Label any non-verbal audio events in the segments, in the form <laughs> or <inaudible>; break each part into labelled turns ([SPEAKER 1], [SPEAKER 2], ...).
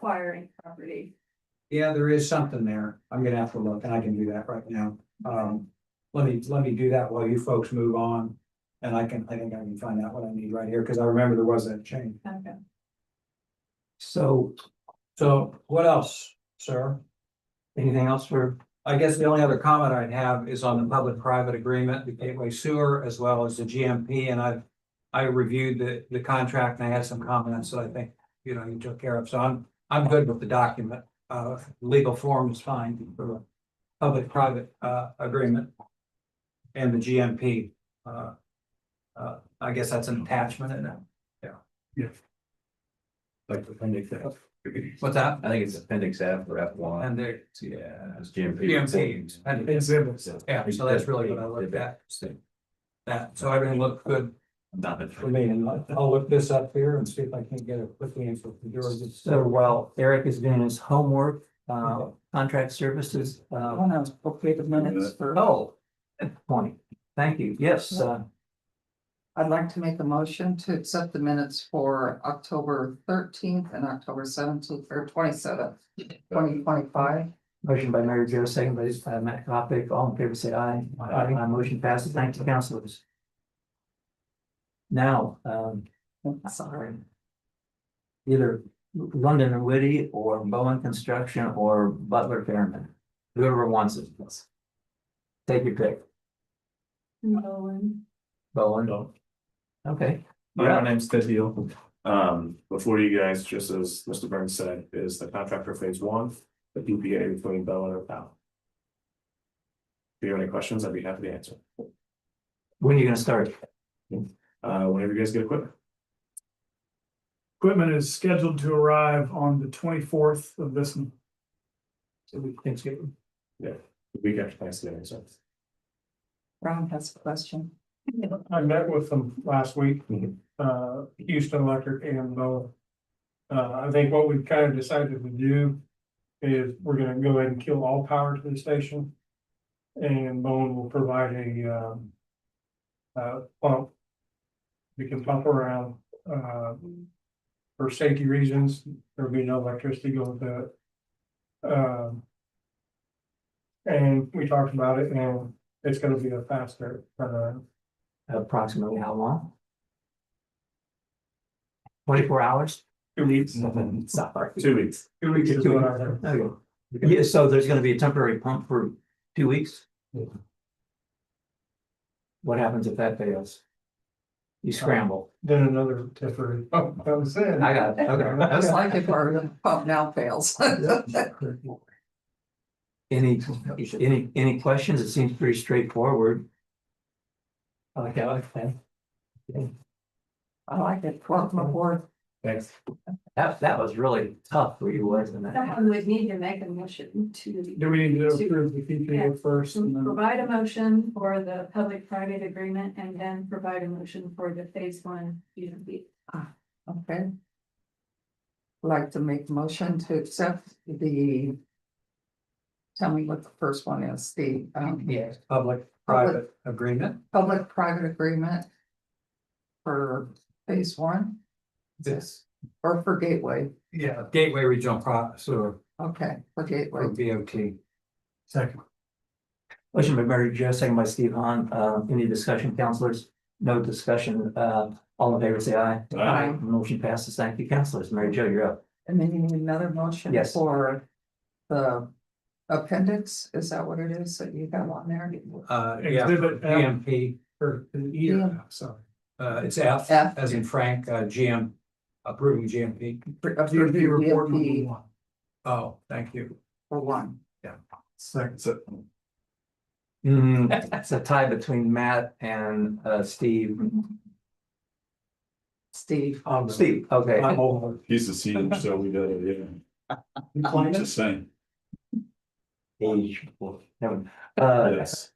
[SPEAKER 1] acquiring property.
[SPEAKER 2] Yeah, there is something there. I'm gonna have to look and I can do that right now. Um, let me, let me do that while you folks move on. And I can, I think I can find out what I need right here, because I remember there was that change.
[SPEAKER 1] Okay.
[SPEAKER 2] So, so what else, sir?
[SPEAKER 3] Anything else for,
[SPEAKER 2] I guess the only other comment I'd have is on the public-private agreement, the Gateway Sewer, as well as the GMP, and I. I reviewed the, the contract and I had some comments that I think, you know, you took care of, so I'm, I'm good with the document. Uh, legal form is fine for the public-private, uh, agreement. And the GMP, uh. Uh, I guess that's an attachment in it.
[SPEAKER 4] Like appendix F.
[SPEAKER 2] What's that?
[SPEAKER 4] I think it's appendix F or F one.
[SPEAKER 2] And there,
[SPEAKER 4] Yeah. It's GMP.
[SPEAKER 2] GMP. And it's- yeah, so that's really what I looked at. That, so everything looked good
[SPEAKER 4] Nothing.
[SPEAKER 2] for me, and I'll- I'll look this up here and see if I can get it quickly in for George.
[SPEAKER 3] so while Eric is doing his homework, uh, contract services, uh,
[SPEAKER 2] know, hopefully the
[SPEAKER 4] minutes
[SPEAKER 2] for.
[SPEAKER 3] oh, point. Thank you. Yes, uh,
[SPEAKER 5] I'd like to make a motion to accept the minutes for October thirteenth and October seventeenth or twenty seventh, twenty twenty five.
[SPEAKER 3] motion by Mary Jo, second by uh, Matt Kopic. All in favor, say aye.
[SPEAKER 2] Aye.
[SPEAKER 3] My motion passes. Thank you, counselors. Now, um,
[SPEAKER 2] Oh,
[SPEAKER 3] sorry. Either London or Whitty or Bowen Construction or Butler Fairman, whoever wants it. Take your pick,
[SPEAKER 1] Nolan.
[SPEAKER 3] Bowen.
[SPEAKER 4] No.
[SPEAKER 3] Okay.
[SPEAKER 6] My name's Ted Deal. Um, before you guys, just as Mr. Burns said, is the contract for phase one, the DPA between Bell and Powell. If you have any questions, I'd be happy to answer.
[SPEAKER 3] When are you gonna start?
[SPEAKER 6] Uh, whenever you guys get equipment.
[SPEAKER 7] Equipment is scheduled to arrive on the twenty-fourth of this month.
[SPEAKER 3] Thanksgiving.
[SPEAKER 6] we after Thanksgiving, so.
[SPEAKER 5] Ron has a question.
[SPEAKER 7] I met with them last week,
[SPEAKER 6] Mhm.
[SPEAKER 7] uh, Houston Electric and Bowen. Uh, I think what we've kind of decided to do is we're gonna go ahead and kill all power to the station. And Bowen will provide a, um, uh, pump. We can pump around, uh, for safety reasons, there'll be no electricity going to it. Um, and we talked about it and it's gonna be a faster uh, turnaround.
[SPEAKER 3] Approximately how long? Twenty-four hours?
[SPEAKER 7] Two weeks.
[SPEAKER 3] Sorry.
[SPEAKER 6] Two weeks.
[SPEAKER 7] Two weeks is what I heard.
[SPEAKER 3] Okay. Yeah, so there's gonna be a temporary pump for two weeks?
[SPEAKER 6] Yeah.
[SPEAKER 3] What happens if that fails? You
[SPEAKER 7] <laughs>
[SPEAKER 3] scramble.
[SPEAKER 7] Then another temporary, oh, that was it.
[SPEAKER 3] I got it,
[SPEAKER 2] <laughs>
[SPEAKER 5] It's
[SPEAKER 3] okay.
[SPEAKER 5] like if our pump now fails. <laughs>
[SPEAKER 3] Any, any, any questions? It seems pretty straightforward. I like that, okay.
[SPEAKER 5] I like it. Welcome aboard.
[SPEAKER 6] Thanks.
[SPEAKER 3] That, that was really tough for you, wasn't it?
[SPEAKER 1] Someone would need to make a motion to
[SPEAKER 7] Do we need to approve the PPA first and then?
[SPEAKER 1] provide a motion for the public-private agreement and then provide a motion for the phase one. you know, the-
[SPEAKER 5] Okay. Like to make a motion to accept the. Tell me what the first one is, the um
[SPEAKER 2] Yes, public-private agreement.
[SPEAKER 5] public private agreement. For phase one
[SPEAKER 2] This,
[SPEAKER 5] or for gateway,
[SPEAKER 2] yeah, Gateway Regional Pro, sewer,
[SPEAKER 5] okay, for gateway.
[SPEAKER 2] or BOT.
[SPEAKER 3] Second. Motion by Mary Jo, second by Steve Hahn. Uh, any discussion, counselors? No discussion. Uh, all in favor, say aye.
[SPEAKER 5] Aye.
[SPEAKER 3] Motion passes. Thank you, counselors. Mary Jo, you're up.
[SPEAKER 5] And then you need another motion
[SPEAKER 3] Yes.
[SPEAKER 5] for the appendix, is that what it is that you got on there?
[SPEAKER 2] Uh, yeah,
[SPEAKER 7] Exhibit F.
[SPEAKER 2] GMP,
[SPEAKER 7] Or an E or F, sorry.
[SPEAKER 2] uh, it's F,
[SPEAKER 5] F.
[SPEAKER 2] as in Frank, uh, GM, approving GMP.
[SPEAKER 5] DMP report number
[SPEAKER 7] one.
[SPEAKER 2] Oh, thank you.
[SPEAKER 5] For one.
[SPEAKER 7] Second.
[SPEAKER 3] Hmm, it's a tie between Matt and uh Steve.
[SPEAKER 5] Steve,
[SPEAKER 2] Um,
[SPEAKER 3] Oh, Steve, okay.
[SPEAKER 2] I'm over.
[SPEAKER 6] He's the senior, so we got it, yeah.
[SPEAKER 2] Climate?
[SPEAKER 6] same.
[SPEAKER 3] Age, well, never- Uh,
[SPEAKER 6] Yes.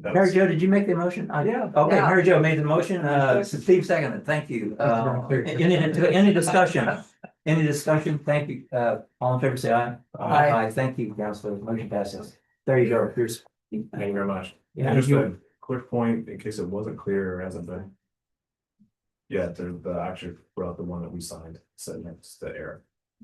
[SPEAKER 3] Mary Jo, did you make the motion? I-
[SPEAKER 2] Yeah.
[SPEAKER 3] Okay,
[SPEAKER 5] Yeah.
[SPEAKER 3] Mary Jo made the motion, uh, Steve seconded, thank you. Uh, any, any
[SPEAKER 5] <laughs>
[SPEAKER 3] discussion? Any discussion? Thank you. Uh, all in favor, say aye.
[SPEAKER 5] Aye.
[SPEAKER 3] Thank you, counselor. Motion passes. There you go. Here's.
[SPEAKER 6] Thank you very much.
[SPEAKER 3] Yeah.
[SPEAKER 6] And just a quick point, in case it wasn't clear or hasn't been. Yeah, the, the actually brought the one that we signed, so next to Eric.